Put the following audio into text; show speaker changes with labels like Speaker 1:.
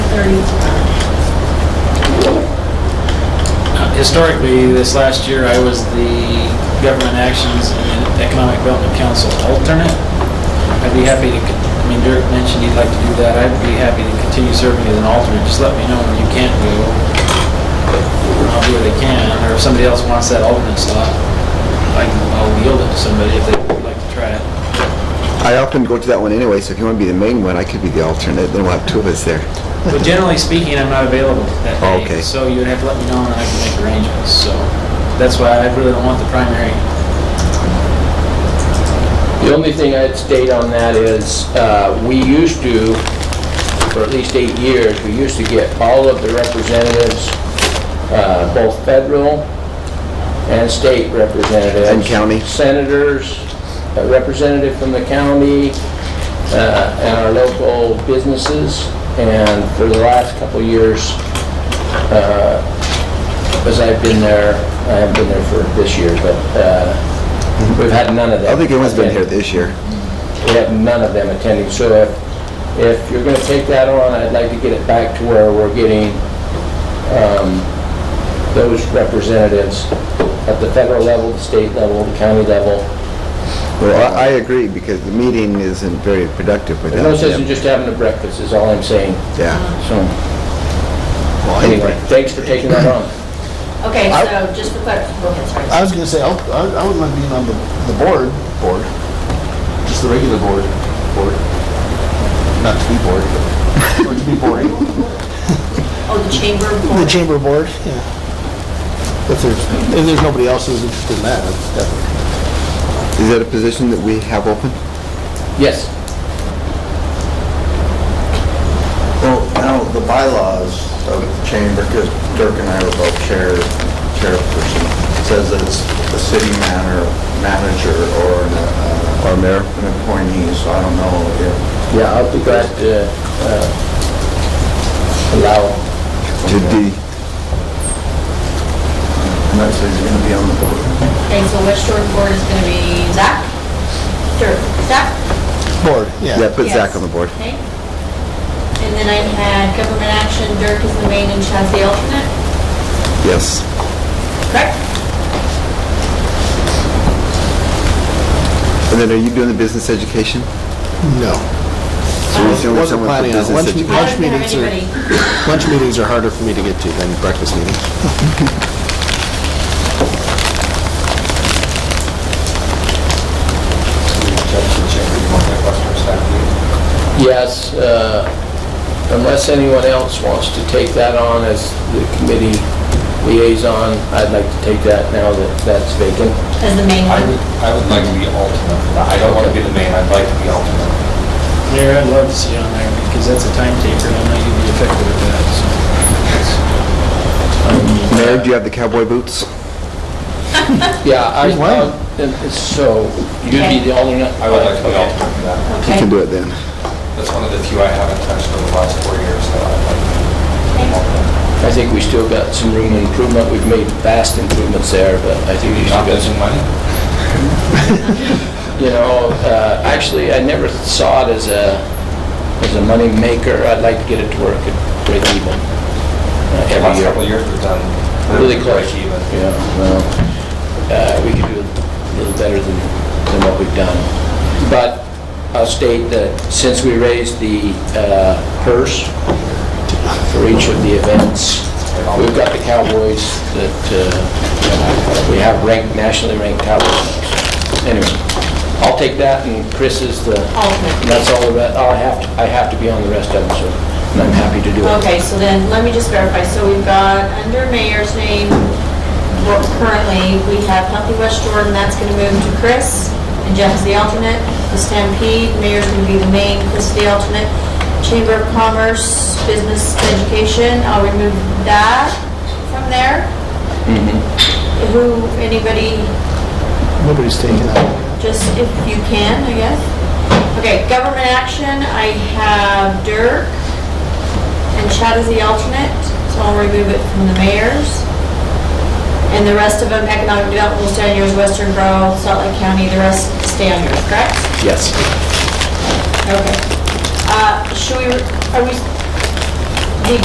Speaker 1: thirty.
Speaker 2: Historically, this last year, I was the Government Actions and Economic Development Council alternate. I'd be happy to, con- I mean, Dirk mentioned he'd like to do that. I'd be happy to continue serving as an alternate. Just let me know when you can't go. I'll do what I can, or if somebody else wants that alternate slot, I can- I'll yield it to somebody if they'd like to try it.
Speaker 3: I often go to that one anyway, so if you want to be the main one, I could be the alternate, then we'll have two of us there.
Speaker 2: But generally speaking, I'm not available that day.
Speaker 3: Okay.
Speaker 2: So you'd have to let me know and I can make arrangements, so. That's why I really don't want the primary.
Speaker 4: The only thing I'd state on that is, uh, we used to, for at least eight years, we used to get all of the representatives, uh, both federal and state representatives.
Speaker 3: And county.
Speaker 4: Senators, a representative from the county, uh, and our local businesses. And for the last couple of years, uh, as I've been there, I haven't been there for this year, but uh, we've had none of
Speaker 3: I
Speaker 4: that.
Speaker 3: don't think anyone's been here this year.
Speaker 4: We have none of them attending, so if, if you're gonna take that on, I'd like to get it back to where we're getting, um, those representatives at the federal level, the state level, the county level.
Speaker 3: Well, I I agree, because the meeting isn't very productive
Speaker 4: There's
Speaker 3: without
Speaker 4: no sense in
Speaker 3: them.
Speaker 4: just having a breakfast, is all I'm saying,
Speaker 3: Yeah.
Speaker 4: so,
Speaker 3: Well,
Speaker 4: anyway, thanks for taking that on.
Speaker 1: Okay,
Speaker 3: Uh,
Speaker 5: I-
Speaker 1: so just for clarification, go ahead, sorry.
Speaker 5: I was gonna say, I'll- I I wouldn't mind being on the, the board, board, just the regular board, board. Not to be bored, but, or to be boring.
Speaker 3: uh,
Speaker 1: Oh, the chamber
Speaker 5: The
Speaker 1: board.
Speaker 5: chamber board, yeah. If there's, if there's nobody else who's interested in that, that's definitely.
Speaker 3: Is that a position that we have open?
Speaker 4: Yes,
Speaker 6: Well, now, the bylaws of the chamber, because Dirk and I were both chair, chairperson, says that it's the city manor, manager, or an, uh,
Speaker 3: Or mayor?
Speaker 6: an appointee, so I don't know if,
Speaker 4: yeah, I'll be glad to, uh, allow,
Speaker 3: To D.
Speaker 6: and that's, he's gonna be on the board.
Speaker 1: Okay, so West Shore board is gonna be Zach? Sure, Zach?
Speaker 5: Board, yeah.
Speaker 3: Yeah, put Zach
Speaker 1: Yes.
Speaker 3: on the board.
Speaker 1: Okay. And then I had government action, Dirk is the main and Chad's the alternate,
Speaker 3: Yes.
Speaker 1: correct?
Speaker 3: And then are you doing the business education?
Speaker 5: No.
Speaker 3: So you're the only someone
Speaker 5: Wasn't
Speaker 3: for
Speaker 5: planning on it.
Speaker 3: business
Speaker 5: Once we-
Speaker 1: I
Speaker 3: education?
Speaker 1: don't
Speaker 5: Lunch
Speaker 1: have
Speaker 5: meetings are-
Speaker 1: anybody.
Speaker 5: Lunch meetings are harder for me to get to than breakfast meetings.
Speaker 4: yes, uh, unless anyone else wants to take that on as the committee liaison, I'd like to take that now that that's vacant.
Speaker 1: As the main
Speaker 7: I
Speaker 1: one.
Speaker 7: would, I would like to be alternate. for that. I don't want to be the main, I'd like to be alternate.
Speaker 2: Mayor, I'd love to see you on there because that's a time taker and I know you'd be effective at that, so.
Speaker 3: Mayor, do you have the cowboy boots?
Speaker 4: Yeah, I,
Speaker 5: Who's what?
Speaker 4: uh, so you'd be the alternate?
Speaker 7: I would like to be alternate for that.
Speaker 3: You
Speaker 1: Okay.
Speaker 3: can do it then.
Speaker 7: That's one of the few I haven't touched over the last four years, so I'd like to be alternate.
Speaker 4: I think we still got some room for improvement. We've made vast improvements there, but I think we still
Speaker 7: Not
Speaker 4: got some
Speaker 7: losing money?
Speaker 4: you know, uh, actually, I never saw it as a, as a money maker. I'd like to get it to where it could break even uh,
Speaker 7: The
Speaker 4: every
Speaker 7: last
Speaker 4: year.
Speaker 7: couple of years we've done.
Speaker 4: Really close.
Speaker 7: break even.
Speaker 4: Yeah, well, uh, we could do a little better than, than what we've done. But I'll state that since we raised the uh, purse for each of the events, we've got the Cowboys that, uh, we have ranked, nationally ranked Cowboys. Anyway, I'll take that, and Chris is the,
Speaker 1: Alternate.
Speaker 4: and that's all the, re- I have, to I have to be on the rest of them, so, and I'm happy to do it.
Speaker 1: Okay, so then, let me just verify, so we've got under mayor's name, well, currently, we have Healthy West Jordan, that's gonna move to Chris, and Jeff is the alternate, the Stampede, mayor's gonna be the main, Chris is the alternate, Chamber of Commerce, Business Education, I'll remove that from there.
Speaker 4: Mm-hmm.
Speaker 1: Who, anybody,
Speaker 5: Nobody's taking that.
Speaker 1: just if you can, I guess. Okay, government action, I have Dirk, and Chad is the alternate, so I'll remove it from the mayor's. And the rest of them, economic development will stay on yours, Western Grow, Salt Lake County, the rest stay on yours, correct?
Speaker 4: Yes.
Speaker 1: Okay. Uh, should we, are we,